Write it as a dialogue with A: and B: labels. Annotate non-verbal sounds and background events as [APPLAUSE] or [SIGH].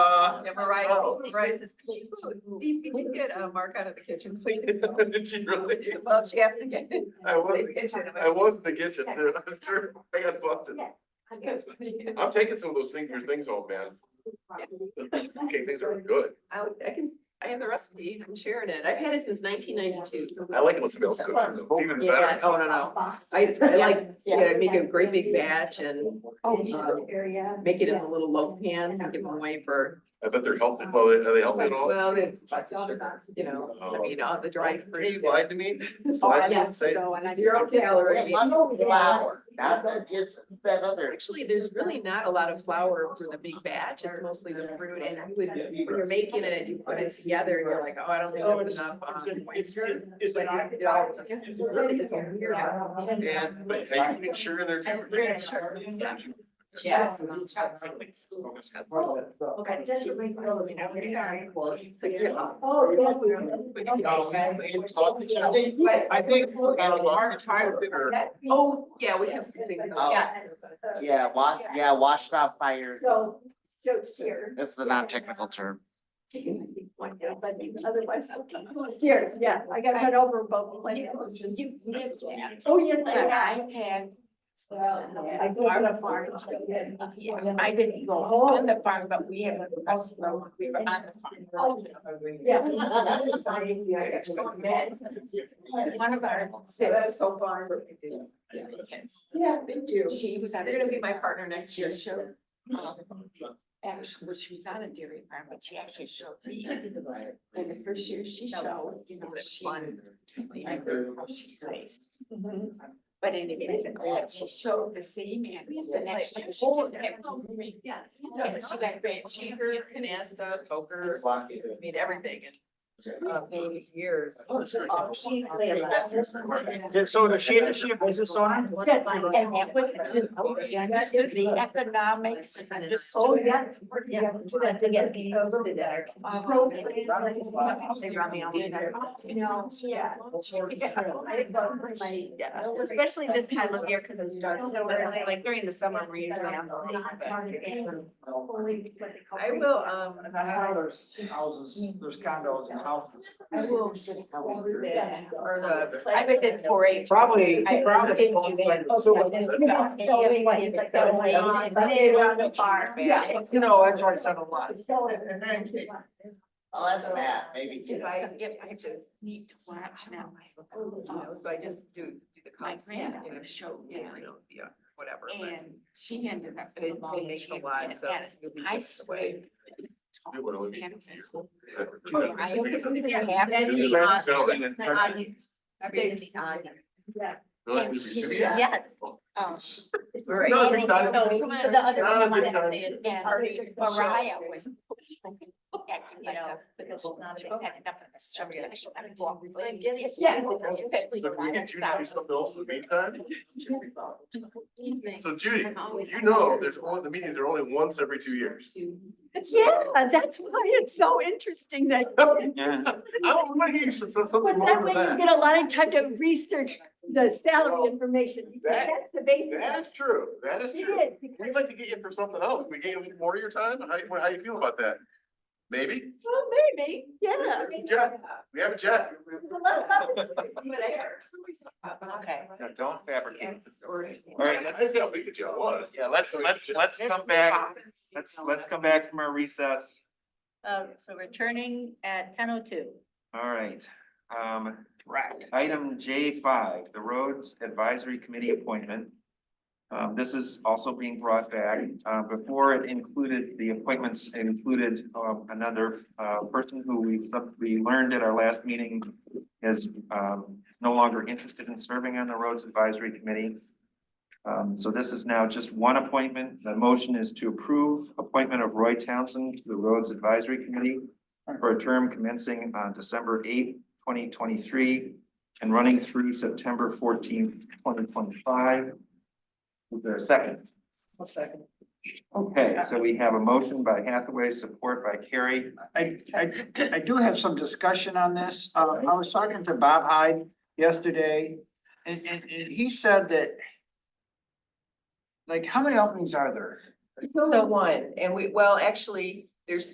A: Uh,
B: and Mariah, Mariah says, could you, Steve, could you get a mark out of the kitchen, please?
A: [LAUGHS] Did you really?
B: Well, she has to get. it.
A: I was-
B: The kitchen, I'm like,
A: I was in the kitchen too. I was sure I got busted.
B: "That's funny."
A: I'm taking some of those singular things home, man. Okay, things are good.
B: I, I can, I have the recipe, I'm sharing it, I've had it since nineteen ninety-two.
A: I like it when somebody else cooks them. It's even
B: Yeah,
A: better.
B: oh, no, no, I, I like, yeah, I make a great big batch and um,
C: uh,
D: Oh.
B: make it in the little loaf pans and give them away for,
A: I bet they're healthy. Well, are they healthy at all? Oh.
B: well, it's lots of sugar, you know, I mean, all the dried
A: He
B: fruit.
A: lied to me. So
D: Oh,
A: I didn't
D: yes,
A: say,
D: so, and I.
B: Zero calorie.
D: Flour,
C: Not that it's that other.
B: Actually, there's really not a lot of flour for the big batch, it's mostly the fruit and you would, when you're making it, you put it together and you're like, oh, I don't think there's enough. um, but it all- it really is a weird-
A: and, but are you putting sugar in there too?
C: Yeah, sure.
B: Yeah.
D: Okay.
B: Oh,
C: I think.
B: Oh, yeah, we have some things.
C: Oh. Yeah, wa- yeah, washed off fire
D: So, Joe's here.
C: That's the non-technical term.
D: But otherwise, stairs, yeah, I got head over both. You lived there. Oh, yes, I had. I grew up on a farm.
E: I didn't go on the farm, but we have a restaurant, we were on the farm.
D: Yeah.
E: One of our siblings,
B: Sarah's so far.
E: kids,
B: Yeah, thank you.
D: Oh,
E: she was on.
B: You're gonna be my partner next year.
E: She showed, um, actually, well, she was on a dairy farm, but she actually showed me. And the first year she showed, you know, she. I remember how she placed. But anyway, she showed the same man. The next year, she just kept going.
B: Yeah.
E: Yeah, she got great
B: Cheaper,
E: cheaper.
B: canasta, poker, I mean, everything. Uh, these years.
F: So is she, is she a business owner?
E: And that was, you understood the economics and understood.
D: Oh, yeah, yeah, do that thing at the over the there.
E: Um,
D: They
E: brought me on there.
D: No, yeah. I didn't go for my-
B: Yeah.
D: Especially this time of year, because it's dark, so we're like.
B: during the summer, we're I
D: I
B: will, um,
F: And I know there's houses, there's condos and houses.
B: I will. order that, Or the, I was in four H.
F: Probably,
E: I
F: probably.
E: did do that.
B: Yeah.
F: You know, that's why I said a lot.
C: I'll ask Matt, maybe.
E: If I, if I just need to watch now.
B: You know, so I just do, do the.
E: My
B: comps, you know,
E: granddaughter showed
B: Yeah,
E: down
B: you know, yeah, whatever. but-
E: and she ended up.
B: But it it makes a lot, so. you'll be
E: I
B: good
E: swear.
B: away.
A: It would only be
E: And-
A: easier.
E: Oh, I always
A: Really,
E: think I have to be on- on- very on. And she-
A: Yeah.
D: Yes.
E: Um,
B: Right.
A: No,
E: No,
A: I think that-
E: the other
A: Not a
E: one,
A: big time.
E: and Mariah was. [LAUGHS] acting like a- but no, she's not, she's had enough of this stuff, so she- I mean, well, really, yes, she
D: Yeah.
E: was, she said, "We
A: So can we
E: want
A: get you to do
E: that."
A: something else in the
E: [LAUGHS]
A: meantime?
E: Evening.
A: So Judy,
E: I'm always-
A: you know, there's only, the meetings are only once every two
E: [LAUGHS]
A: years.
D: Yeah, Uh, that's why it's so interesting that.
C: Oh,
A: I don't want to hear some- something
D: But
A: wrong
D: that way
A: with
D: you
A: that.
D: get a lot of time to research the salary information.
A: That-
D: That's the basis.
A: That is true. That is
D: It
A: true.
D: is,
A: We'd
D: because-
A: like to get you for something else. We gave you more of your time. How, you- how you feel about that? Maybe?
D: Well, Oh, maybe, yeah.
A: Yeah, we have a chat.
D: There's a lot of opportunity.
B: But I- for some reason, I thought-
E: Okay.
G: Now, don't fabricate.
B: Yes, or-
G: All right, let's-
A: I see how big the job was.
G: Yeah, let's, let's, let's come back, let's, let's come back from our recess.
H: Uh, so returning at ten oh two.
G: All right, um, item J five, the Roads Advisory Committee appointment. Um, this is also being brought back. Uh, before it included, the appointments included, um, another, uh, person who we, sub- we learned at our last meeting is, um, no longer interested in serving on the Roads Advisory Committee. Um, so this is now just one appointment. The motion is to approve appointment of Roy Townsend to the Roads Advisory Committee for a term commencing on December eighth, twenty twenty-three and running through September fourteenth, twenty twenty-five. Is there a second?
B: One second.
G: Okay, so we have a motion by Hathaway, support by Carrie.
F: I, I, I do have some discussion on this. Uh, I was talking to Bob Hyde yesterday and, and, and he said that like, how many openings are there?
B: So one, and we, well, actually, there's